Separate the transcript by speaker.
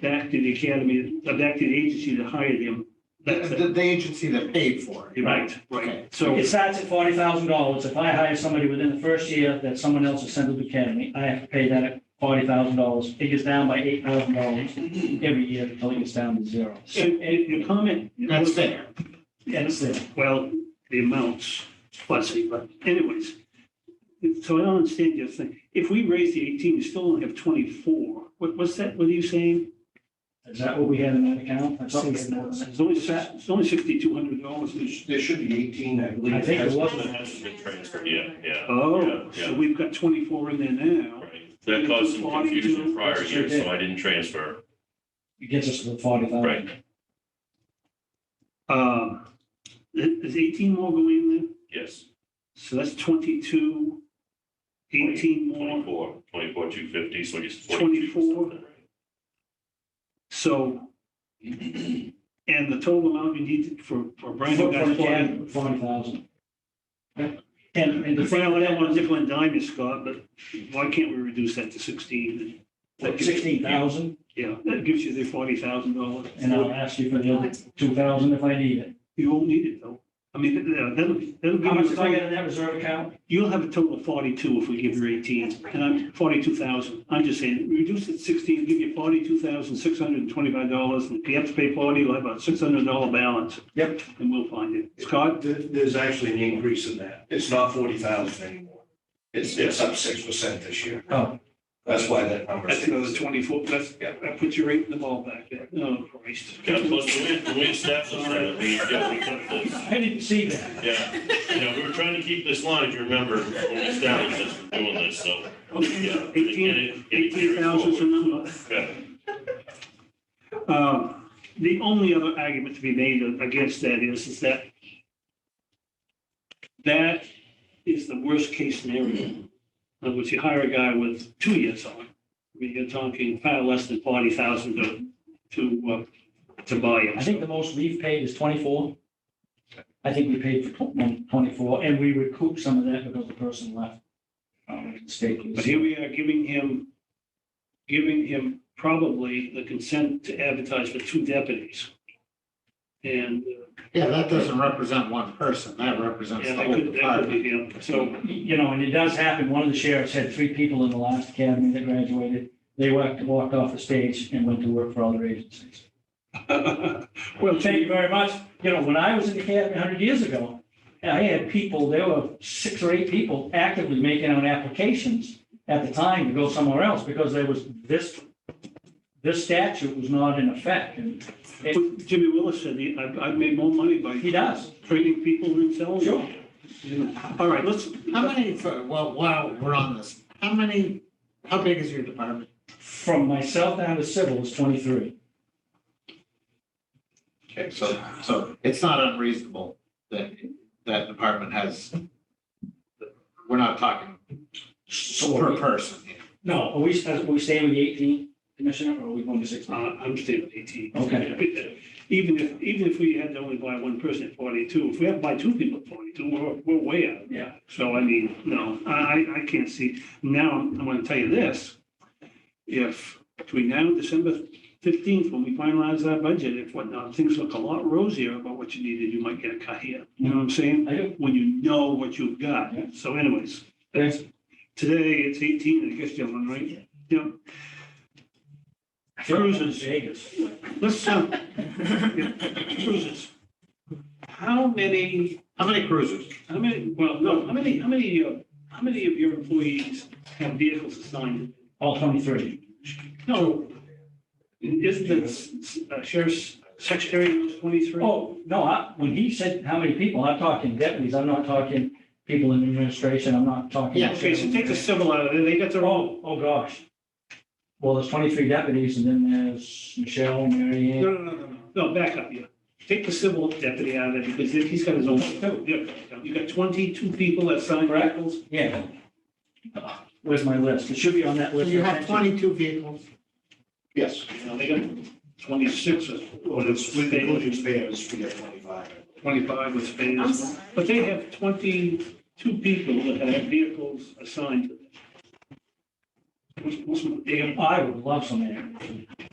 Speaker 1: back to the academy, uh, back to the agency that hired him. That's
Speaker 2: The,
Speaker 1: it.
Speaker 2: the agency that paid for it.
Speaker 1: Right,
Speaker 2: Okay.
Speaker 1: right. So,
Speaker 3: It starts at forty thousand dollars. If I hire somebody within the first year that someone else has sent to the academy, I have to pay that at forty thousand dollars. It gets down by eight thousand dollars every year until it gets down to zero.
Speaker 1: and, and your comment.
Speaker 2: That's fair.
Speaker 1: Yes, well, the amounts, fuzzy, but anyways. So I don't understand your thing. If we raise the eighteen, you still only have twenty-four. What, what's that, what are you saying?
Speaker 3: Is that what we had in that account? I thought we had more than that.
Speaker 1: It's only, sa- it's only sixty-two hundred dollars.
Speaker 4: There sh- there should be eighteen, I believe.
Speaker 3: I think it was.
Speaker 5: That hasn't been transferred yet, yeah,
Speaker 1: Oh, so
Speaker 5: yeah.
Speaker 1: we've got twenty-four in there now.
Speaker 5: right. That caused some confusion prior
Speaker 3: Sure
Speaker 5: years,
Speaker 3: did.
Speaker 5: so I didn't transfer.
Speaker 3: It gets us to the forty thousand.
Speaker 5: Right.
Speaker 1: Um, th- Is eighteen more going in there?
Speaker 5: Yes,
Speaker 1: So that's twenty-two, eighteen more.
Speaker 5: twenty-four, twenty-four, two fifty, so it's forty-two.
Speaker 1: 24.
Speaker 5: something, right?
Speaker 1: So, and the total amount you need for, for Brian. who got flooded-
Speaker 3: Forty thousand. And, and the thing
Speaker 1: Well, I
Speaker 3: with
Speaker 1: don't want
Speaker 3: that
Speaker 1: to
Speaker 3: was
Speaker 1: nickel and dime you, Scott, but why can't we reduce that to sixteen? That gives-
Speaker 3: sixteen thousand,
Speaker 1: Yeah, that gives you the forty thousand dollars.
Speaker 3: and uh, I'll ask you for the other two thousand if I need it.
Speaker 1: You won't need it though. I mean, that- that'll, that'll
Speaker 3: How much
Speaker 1: give
Speaker 3: did I
Speaker 1: you,
Speaker 3: get in that reserve account?
Speaker 1: you'll have a total of forty-two if we give you eighteen, and I'm, forty-two thousand. I'm just saying, reduce it to sixteen, give you forty-two thousand, six hundred and twenty-five dollars. and If you have to pay forty, you'll have about six hundred dollar balance.
Speaker 3: Yep.
Speaker 1: And we'll find it. Scott,
Speaker 4: There- there's actually an increase in that. It's not forty thousand anymore. It's, it's up six percent this year.
Speaker 3: Oh.
Speaker 4: That's why that number.
Speaker 1: that's another twenty-four, that's, that puts you right in the ballpark there. Oh, Christ.
Speaker 5: Yeah, plus the wind, the wind snaps us, uh, we- yeah, we cut the-
Speaker 3: I didn't see that.
Speaker 5: Yeah, yeah, we were trying to keep this line, if you remember, when we established this, we're doing this, so. yeah, and
Speaker 1: Eighteen,
Speaker 5: it- it
Speaker 1: eighteen
Speaker 5: carries
Speaker 1: thousand's the
Speaker 5: forward.
Speaker 1: number.
Speaker 5: Yeah.
Speaker 1: Um, The only other argument to be made against that is, is that that is the worst case scenario. In other words, you hire a guy with two years on. I mean, you're talking far less than forty thousand to, to, uh, to buy
Speaker 3: I
Speaker 1: him.
Speaker 3: think the most we've paid is twenty-four. I think we paid for tw- twenty-four, and we recouped some of that because the person left. um, the state.
Speaker 1: But here we are giving him, giving him probably the consent to advertise for two deputies. And, uh,
Speaker 2: Yeah, that doesn't represent one person. That represents
Speaker 1: yeah,
Speaker 2: the
Speaker 1: that
Speaker 2: whole
Speaker 1: could, that could
Speaker 2: department.
Speaker 1: be him, so.
Speaker 3: You know, and it does happen, one of the sheriffs had three people in the last academy that graduated. They walked, walked off the stage and went to work for other agencies.
Speaker 1: Well,
Speaker 3: Thank you very much. You know, when I was in the academy hundred years ago, I had people, there were six or eight people actively making out applications at the time to go somewhere else because there was this, this statute was not in effect. And it-
Speaker 1: Jimmy Willis said, he- I've, I've made more money by
Speaker 3: He does.
Speaker 1: training people than selling. them. You know, All right, let's,
Speaker 2: How many, for- well, while we're on this, how many, how big is your department?
Speaker 3: From myself down to civil is twenty-three.
Speaker 2: Okay, so, so it's not unreasonable that that department has, we're not talking per
Speaker 3: So,
Speaker 2: person.
Speaker 3: no, are we, are we staying with the eighteen, Commissioner, or are we going to
Speaker 1: uh,
Speaker 3: sixteen?
Speaker 1: I'm staying with eighteen.
Speaker 3: Okay.
Speaker 1: Even if, even if we had to only buy one person at forty-two, if we have to buy two people at forty-two, we're, we're way out.
Speaker 3: Yeah.
Speaker 1: So I mean, no, I, I- I can't see. Now, I'm going to tell you this. If between now and December fifteenth, when we finalize our budget, if whatnot, things look a lot rosier about what you needed, you might get a cut here. You know what I'm saying?
Speaker 3: I do.
Speaker 1: When you know what you've got.
Speaker 3: Yeah.
Speaker 1: So anyways,
Speaker 3: Thanks.
Speaker 1: Today, it's eighteen, I guess, gentlemen, right? Yep. Cruises.
Speaker 3: Vegas.
Speaker 1: Let's, uh, yeah, cruises. How many,
Speaker 2: How many cruisers?
Speaker 1: how many, well, no, how many, how many, uh, how many of your employees have vehicles assigned?
Speaker 3: All twenty-three.
Speaker 1: No. Isn't the uh, sheriff's secretary twenty-three?
Speaker 3: Oh, no, I, when he said how many people, I'm talking deputies, I'm not talking people in administration, I'm not talking.
Speaker 2: Yeah,
Speaker 1: Okay, so take the civil out of it, they got their own.
Speaker 3: Oh, oh, gosh. Well, there's twenty-three deputies and then there's Michelle, Mary
Speaker 1: No,
Speaker 3: Ann.
Speaker 1: no, no, no, no, no, back up, yeah. Take the civil deputy out of it, because he's got his own. Yeah, You got twenty-two people assigned
Speaker 3: Correct.
Speaker 1: vehicles.
Speaker 3: Yeah. Where's my list? It should be on that
Speaker 2: So
Speaker 3: list.
Speaker 2: you have twenty-two vehicles.
Speaker 4: Yes.
Speaker 1: You know, they got twenty-six or
Speaker 4: Well, it's with
Speaker 1: Spain.
Speaker 4: including spares, we got twenty-five.
Speaker 1: twenty-five with
Speaker 5: I'm
Speaker 1: Spanish.
Speaker 5: sorry.
Speaker 1: But they have twenty-two people that have vehicles assigned to them. What's- what's my damn-
Speaker 3: I would love some air.